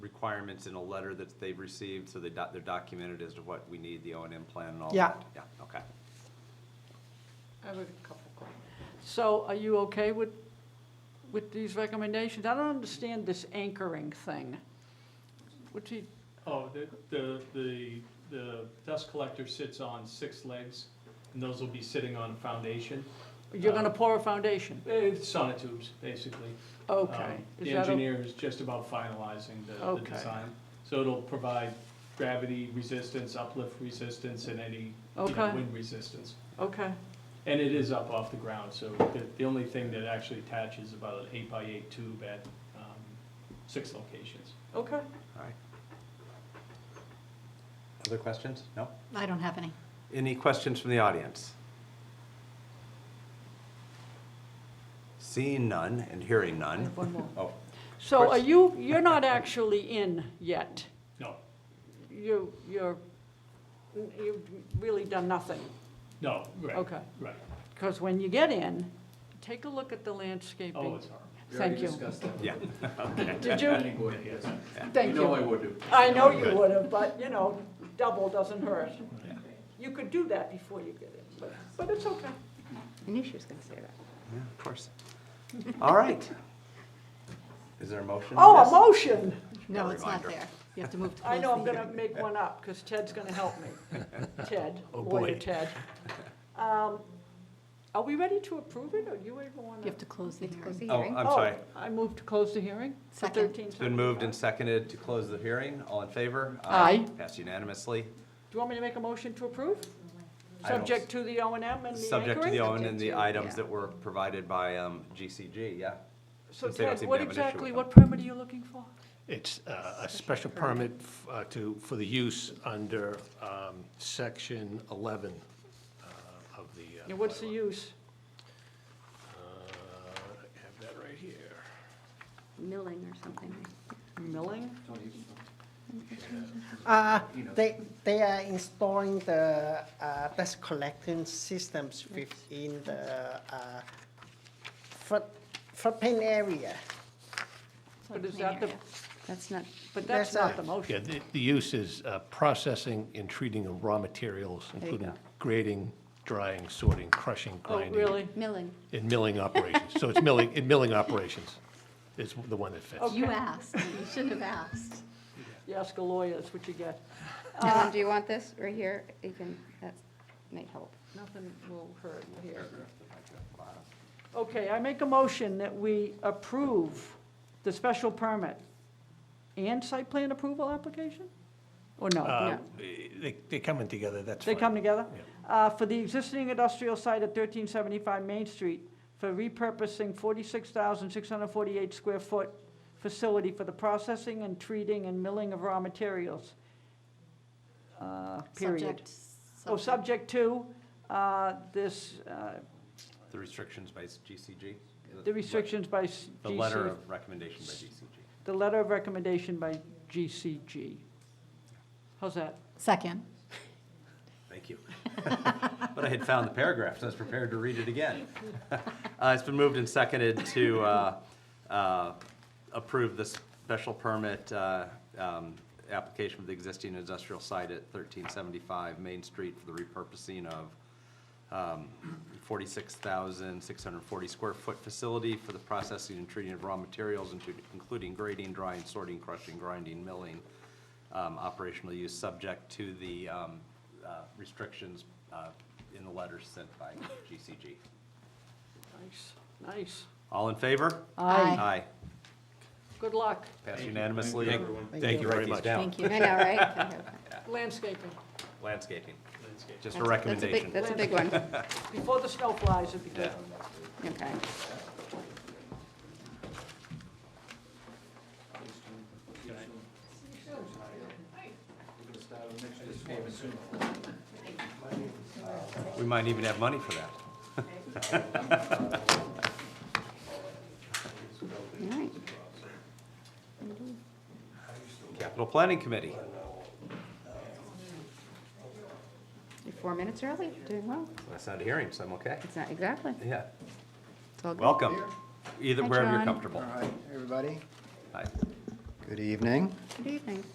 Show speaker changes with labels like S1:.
S1: requirements in a letter that they've received, so they doc, they're documented as to what we need, the O and M plan and all
S2: Yeah.
S1: that? Yeah. okay.
S3: I have a couple questions.
S2: So are you okay with, with these recommendations? I don't understand this anchoring thing. Which he,
S4: Oh, the, the, the, the dust collector sits on six legs, and those will be sitting on a foundation.
S2: you're
S4: Uh,
S2: gonna pour a foundation?
S4: It's sonotubes, basically.
S2: Okay.
S4: Um,
S2: Is
S4: The
S2: that o-
S4: engineer is just about finalizing the, the
S2: Okay.
S4: design. So it'll provide gravity resistance, uplift resistance, and any, you know,
S2: Okay.
S4: wind resistance.
S2: Okay,
S4: And it is up off the ground, so the, the only thing that actually attaches is about an eight by eight tube at, um, six locations.
S2: okay.
S1: All right. Other questions? No?
S5: I don't have any.
S1: Any questions from the audience? Seeing none and hearing
S2: I
S1: none.
S2: have one more.
S1: Oh,
S2: So are
S1: Chris?
S2: you, you're not actually in yet?
S4: No,
S2: You, you're, you've really done nothing?
S4: no, right,
S2: Okay.
S4: right.
S2: Because when you get in, take a look at the
S4: Oh,
S2: landscaping.
S4: it's hard.
S6: We already
S2: Thank you.
S6: discussed that with
S1: yeah,
S2: Did you?
S6: planning board, yes.
S2: Thank
S6: You know I
S2: you.
S6: would do.
S2: I know you
S1: Good.
S2: would have, but, you know, double doesn't hurt.
S1: Yeah.
S2: You could do that before you get in, but, but it's okay.
S5: I knew she was going to say that.
S1: yeah, of course. All right. Is there a motion?
S2: Oh,
S1: Yes.
S2: a motion!
S5: No, it's not
S1: reminder.
S5: there. You have to move to
S2: I
S5: close
S2: know I'm
S5: the
S2: gonna
S5: hearing.
S2: make one up, because Ted's gonna help me. Ted,
S1: Oh,
S2: lawyer
S1: boy.
S2: Ted. Um, Are we ready to approve it, or you even wanna?
S5: You have to close the hearing.
S1: Oh, I'm sorry.
S2: Oh, I move to close the hearing? for
S5: Second.
S2: 13
S1: It's been moved and
S2: Do
S1: seconded to close the hearing. All in favor?
S2: Aye.
S1: Passed unanimously.
S2: you want me to make a motion to approve?
S1: I don't-
S2: Subject to the O and M and the anchoring?
S1: Subject to the own and the
S5: Subject to,
S1: items
S5: yeah.
S1: that were provided by um, GCG, yeah.
S2: So
S1: Since they don't
S2: Ted,
S1: seem to
S2: what
S1: have an issue
S2: exactly,
S1: with
S2: what permit are you looking for?
S7: It's uh, a special permit f- uh, to, for the use under um, section 11 uh, of the. uh,
S2: And what's the
S7: bylaw.
S2: use?
S7: Uh, I have that right here.
S5: Milling or something.
S2: Milling?
S6: Tony, you can-
S8: Uh,
S6: You know.
S8: they, they are installing the, uh, dust collecting systems within the, uh, foot, footprint area.
S2: But is that the,
S5: That's not,
S2: but that's
S8: That's
S2: not
S8: a-
S2: the
S7: Yeah,
S2: motion.
S7: the, the use is uh, processing and treating of raw materials,
S2: you
S7: including
S2: go.
S7: grading, drying, sorting, crushing,
S2: Oh,
S7: grinding.
S2: really?
S5: milling.
S7: And milling operations. So it's milling, and milling operations is the one that fits.
S2: Okay.
S5: You asked. You shouldn't have asked.
S2: You ask a lawyer, that's what you get.
S5: Ellen, do you want this right here? You can, that might help.
S2: Nothing will hurt here. Okay, I make a motion that we approve the special permit and site plan approval application? Or no?
S7: Uh, They, they come in together, that's
S2: They
S7: fine.
S2: come together? Uh, For the existing industrial site at 1375 Main Street for repurposing 46,648 square foot facility for the processing and treating and milling of raw materials. Uh, Period.
S5: Subject.
S2: Oh, subject to uh, this, uh,
S1: The restrictions by GCG?
S2: the restrictions by s-
S1: The letter
S2: GC,
S1: of recommendation by GCG.
S2: the letter of recommendation by GCG. How's that?
S5: Second.
S1: Thank you. But I had found the paragraph, so I was prepared to read it again. Uh, It's been moved and seconded to uh, uh, approve the special permit uh, um, application of the existing industrial site at 1375 Main Street for the repurposing of um, 46,640 square foot facility for the processing and treating of raw materials, into- including grading, drying, sorting, crushing, grinding, milling, um, operational use, subject to the um, uh, restrictions uh, in the letters sent by GCG.
S2: Nice, nice.
S1: All in favor?
S5: Aye.
S1: Aye.
S2: Good luck.
S1: Passed unanimously.
S4: Thank you, everyone.
S1: Thank you
S7: very
S1: Write these
S7: much.
S1: down.
S5: Thank you. I know, right? That's
S2: Landscaping,
S1: Landscaping,
S4: Landscape.
S1: just
S5: a
S1: a
S5: big-
S1: recommendation.
S5: That's a big one.
S2: before the snow flies, it'd be good.
S1: Yeah.
S5: Okay.
S6: We're gonna start on next year's payment soon.
S1: We might even have money for that.
S5: All right.
S1: Capital Planning Committee.
S5: You're four minutes early. Doing well.
S1: That's not a hearing, so I'm okay.
S5: It's not, exactly.
S1: Yeah,
S5: It's all good.
S1: welcome. Either,
S5: Hi,
S1: wherever you're
S5: John.
S1: comfortable.
S6: All right, everybody,
S1: Hi.
S6: good
S9: Good evening.
S5: Good evening.